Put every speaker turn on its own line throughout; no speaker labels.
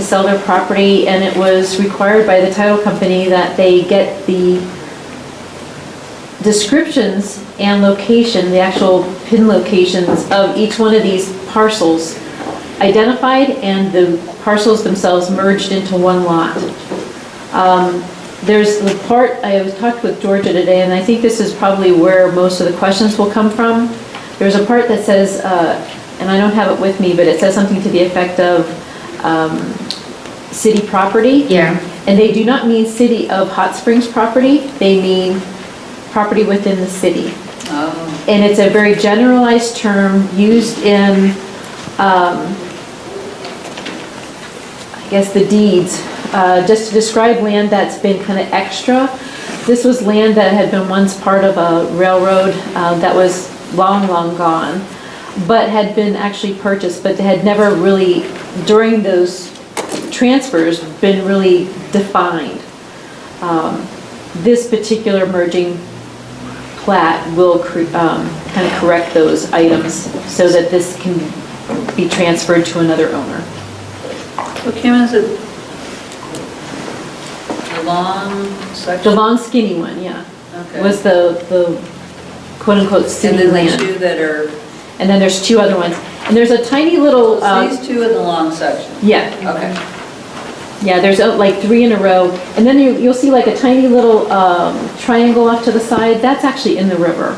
sell their property, and it was required by the title company that they get the descriptions and location, the actual pin locations of each one of these parcels identified, and the parcels themselves merged into one lot. Um, There's the part, I was talked with Georgia today, and I think this is probably where most of the questions will come from. There's a part that says, uh, and I don't have it with me, but it says something to the effect of um, city property.
Yeah.
And they do not mean city of Hot Springs property, they mean property within the city.
Oh.
And it's a very generalized term used in, um, I guess, the deeds, uh, just to describe land that's been kind of extra. This was land that had been once part of a railroad uh, that was long, long gone, but had been actually purchased, but had never really, during those transfers, been really defined. Um, This particular merging plat will um, kind of correct those items so that this can be transferred to another owner.
What came as a a long
The
section?
long skinny one, yeah,
Okay.
was the, the quote-unquote
And
city
then the
land.
two that are,
And then there's two other ones. And there's a tiny little, um,
it's these two in the long section?
yeah,
Okay.
yeah, there's uh, like three in a row. And then you, you'll see like a tiny little um, triangle off to the side, that's actually in the river.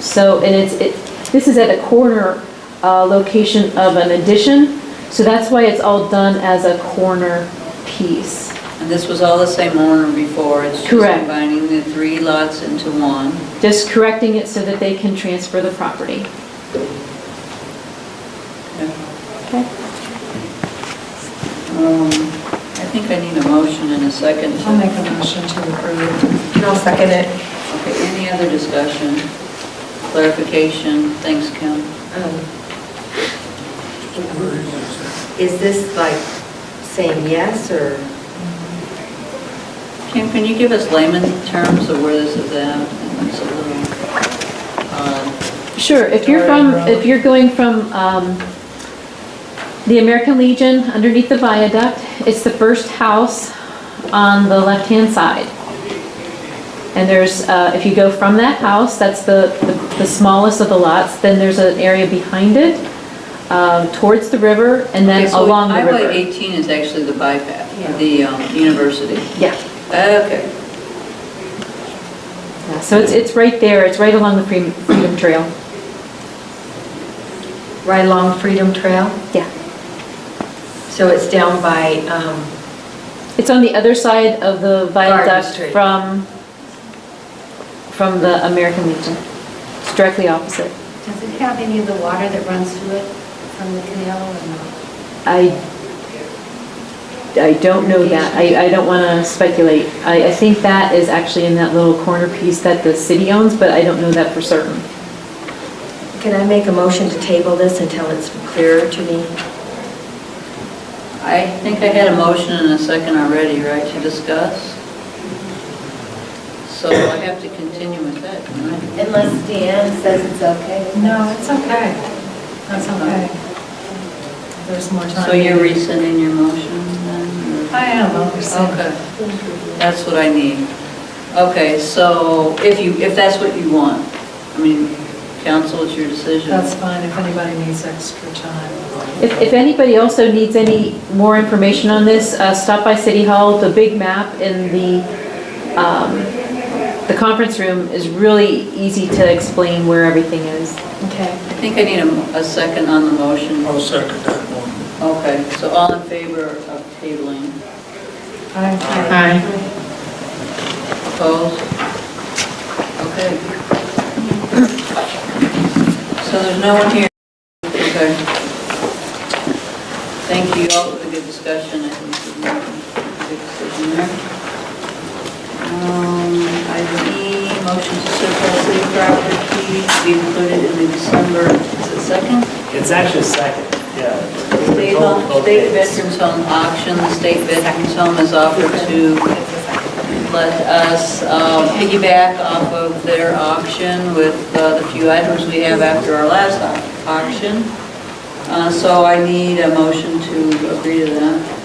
So, and it's, it, this is at a corner uh, location of an addition, so that's why it's all done as a corner piece.
And this was all the same owner before? It's just
Correct.
combining the three lots into one?
Just correcting it so that they can transfer the property. Okay.
Um, I think I need a motion and a second. to-
I'll make a motion to approve. I'll second it.
Okay, any other discussion, clarification? Thanks, Kim.
Um, Is this like saying yes or?
Kim, can you give us layman terms of where this is at? It's a little, uh,
Sure, if you're from, if you're going from um, the American Legion underneath the viaduct, it's the first house on the left-hand side. And there's, uh, if you go from that house, that's the, the- the smallest of the lots, then there's an area behind it, um, towards the river, and
Okay,
then
so
along the
Highway
river.
18 is actually the bypass,
Yeah.
the um, university.
Yeah.
Okay,
Yeah, So it's, it's right there, it's right along the Freedom Freedom Trail.
Right along Freedom Trail?
Yeah.
So it's down by, um,
It's on the other side of the viaduct
Street.
from, from the American Legion. It's directly opposite.
Does it have any of the water that runs through it from the canal or not?
I, I don't know that. I, I don't want to speculate. I, I think that is actually in that little corner piece that the city owns, but I don't know that for certain.
can I make a motion to table this until it's clearer to me?
I think I had a motion and a second already, right, to discuss? So I have to continue with that, don't I?
Unless Deanne says it's okay.
No, it's okay. That's okay. There's more time.
So you're rescinding your motion then? or-
I am, I'll rescind.
Okay, that's what I need. Okay, so if you, if that's what you want, I mean, council, it's your decision.
That's fine if anybody needs extra time.
If, if anybody also needs any more information on this, uh, stop by City Hall. The big map in the, um, the conference room is really easy to explain where everything is.
Okay.
I think I need a, a second on the motion.
I'll second that one.
Okay, so all in favor of tabling,
I-
Aye.
opposed? Okay. So there's no one here? Okay. Thank you all for the good discussion, I think we made a good decision there. Um, Item E, motion to surplus city property to be included in the December, is it second?
It's actually second, yeah.
State home- State Veterans Home Auction, the State Veterans Home has offered to let us um, piggyback off of their auction with uh, the few items we have after our last au- auction. Uh, So I need a motion to agree to that.